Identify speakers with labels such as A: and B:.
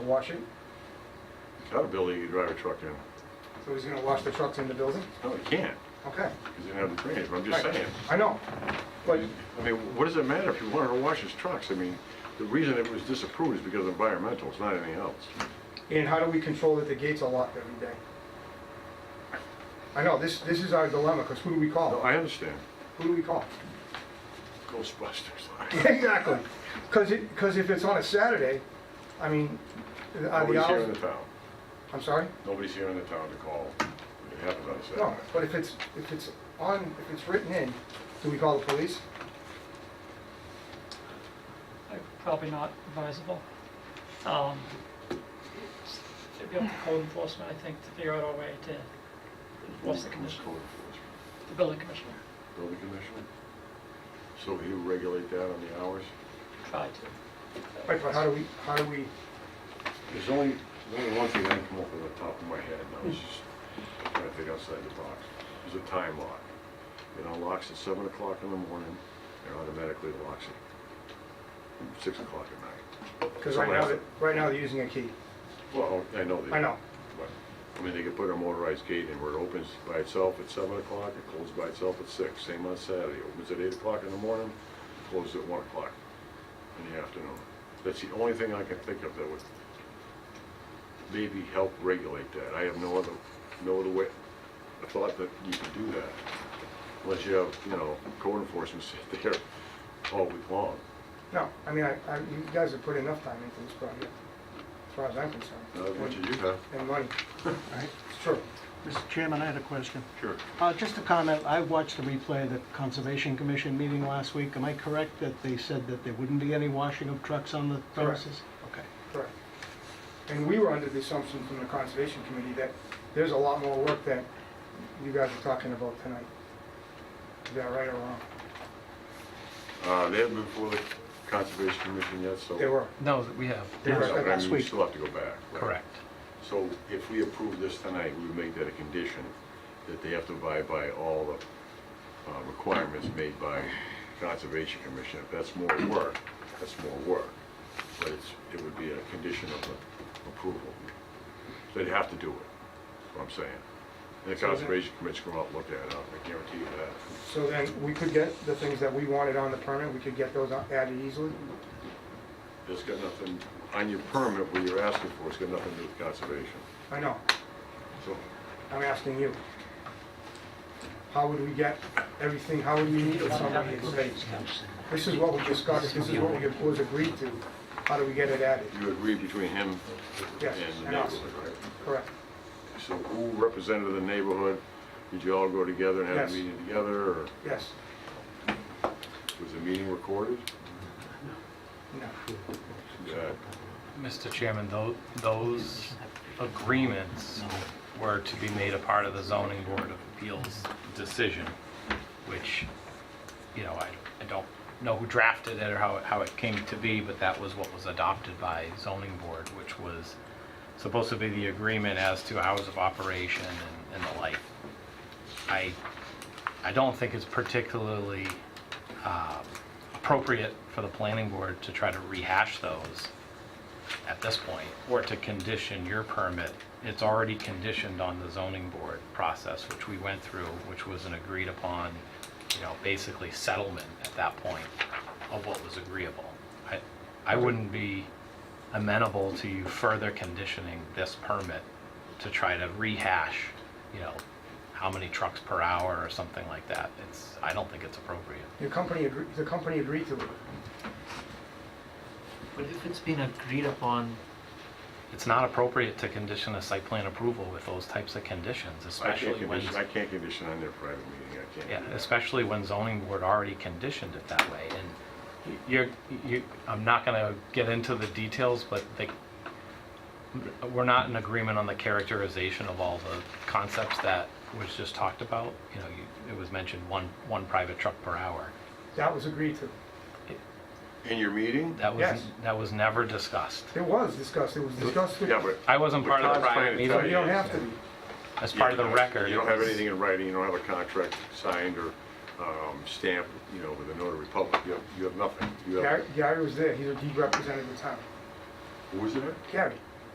A: Washing,
B: Got a building you can drive a E truck in.
A: so he's gonna wash the trucks in the building?
B: No, you can't,
A: Okay.
B: because you don't have the drainage, but I'm just
A: Right.
B: saying.
A: I know, but,
B: I mean, what does it matter if you want her to wash his trucks? I mean, the reason it was disapproved is because of environmental, it's not anything else.
A: and how do we control that the gates are locked every day? I know, this, this is our dilemma, because who do we
B: No,
A: call?
B: I understand.
A: Who do we call?
B: Ghostbusters.
A: Exactly, because it, because if it's on a Saturday, I mean, are the
B: Nobody's here in the
A: hours...
B: town.
A: I'm sorry?
B: Nobody's here in the town to call. It happens on a
A: No,
B: Saturday.
A: but if it's, if it's on, if it's written in, do we call the police?
C: Like, Probably not advisable. Um, it's- It'd be up to code enforcement, I think, to figure out a way to enforce the commission,
B: Code enforcement.
C: the building commissioner,
B: Building commissioner? So he would regulate that on the hours?
C: try to.
A: Right, but how do we, how do we,
B: There's only, there's only one thing that can come up with the top of my head, and I was just trying to think outside the box. There's a time lock. It unlocks at seven o'clock in the morning, and automatically locks at six o'clock at night.
A: because right now,
B: Someone
A: they're-
B: has
A: right now they're using a key.
B: to- Well, I know they.
A: I know.
B: but, I mean, they could put a motorized gate in where it opens by itself at seven o'clock, it closes by itself at six, same on Saturday. Opens at eight o'clock in the morning, closes at one o'clock in the afternoon. That's the only thing I can think of that would maybe help regulate that. I have no other, no other way, I thought that you could do that. Unless you have, you know, code enforcement sit there all week long.
A: No, I mean, I, I, you guys have put enough time into this project, as far as I'm concerned.
B: Not as much as you have.
A: And money.
D: Right.
A: It's true.
D: Mr. Chairman, I had a question.
B: Sure.
D: Uh, Just a comment, I watched the replay of the Conservation Commission meeting last week. Am I correct that they said that there wouldn't be any washing of trucks on the premises? Okay.
A: Correct. And we were under the assumption from the Conservation Committee that there's a lot more work that you guys are talking about tonight. Is that right or wrong?
B: Uh, they haven't been before the Conservation Commission yet, so.
A: They were.
E: No, that we have.
A: They were.
B: So, I mean,
D: Last
B: we
D: week.
B: still have to go back. right?
E: Correct.
B: So if we approve this tonight, we would make that a condition, that they have to abide by all the uh, requirements made by Conservation Commission. If that's more work, that's more work, but it's, it would be a condition of a- approval. So They'd have to do it, is what I'm saying. And the
A: So then-
B: Conservation Commission come out and look at it, I guarantee you that.
A: So then, we could get the things that we wanted on the permit, we could get those added easily?
B: It's got nothing, on your permit, what you're asking for, it's got nothing to do with conservation.
A: I know,
B: So
A: I'm asking you. How would we get everything, how would we meet with somebody and say, this is what we discussed, this is what we- was agreed to, how do we get it added?
B: you agree between him
A: Yes,
B: and the
A: and us.
B: neighborhood, right?
A: Correct.
B: So who represented the neighborhood? Did you all go together and have
A: Yes.
B: a meeting together, or
A: Yes.
B: was the meeting recorded?
A: No.
B: Yeah.
E: Mr. Chairman, tho- those agreements were to be made a part of the zoning board of appeals decision, which, you know, I I don't know who drafted it or how it- how it came to be, but that was what was adopted by zoning board, which was supposed to be the agreement as to hours of operation and- and the like. I, I don't think it's particularly um, appropriate for the planning board to try to rehash those at this point, or to condition your permit. It's already conditioned on the zoning board process, which we went through, which was an agreed upon, you know, basically settlement at that point of what was agreeable. I, I wouldn't be amenable to you further conditioning this permit to try to rehash, you know, how many trucks per hour or something like that. It's, I don't think it's appropriate.
A: Your company, agree- the company agreed to it.
F: But if it's been agreed upon,
E: It's not appropriate to condition a site plan approval with those types of conditions,
B: I can't
E: especially when,
B: condition, I can't condition on their private meeting, I can't.
E: yeah,
B: do that.
E: especially when zoning board already conditioned it that way. And you're, you, I'm not gonna get into the details, but they, we're not in agreement on the characterization of all the concepts that was just talked about. You know, you, it was mentioned one, one private truck per hour.
A: That was agreed to.
B: In your meeting?
E: That was,
A: Yes.
E: that was never discussed.
A: It was discussed, it was discussed with,
B: Yeah, but.
E: I wasn't part of the
B: Todd's trying
E: private
B: to tell
A: you
E: meeting,
A: don't have to be.
E: as part of the
B: You don't-
E: record.
B: You don't
E: it
B: have
E: was-
B: anything in writing, you don't have a contract signed or um, stamped, you know, with the notary public, you have, you have nothing. You have,
A: Gary, Gary was there, he, he represented the town.
B: who was there?
A: Gary,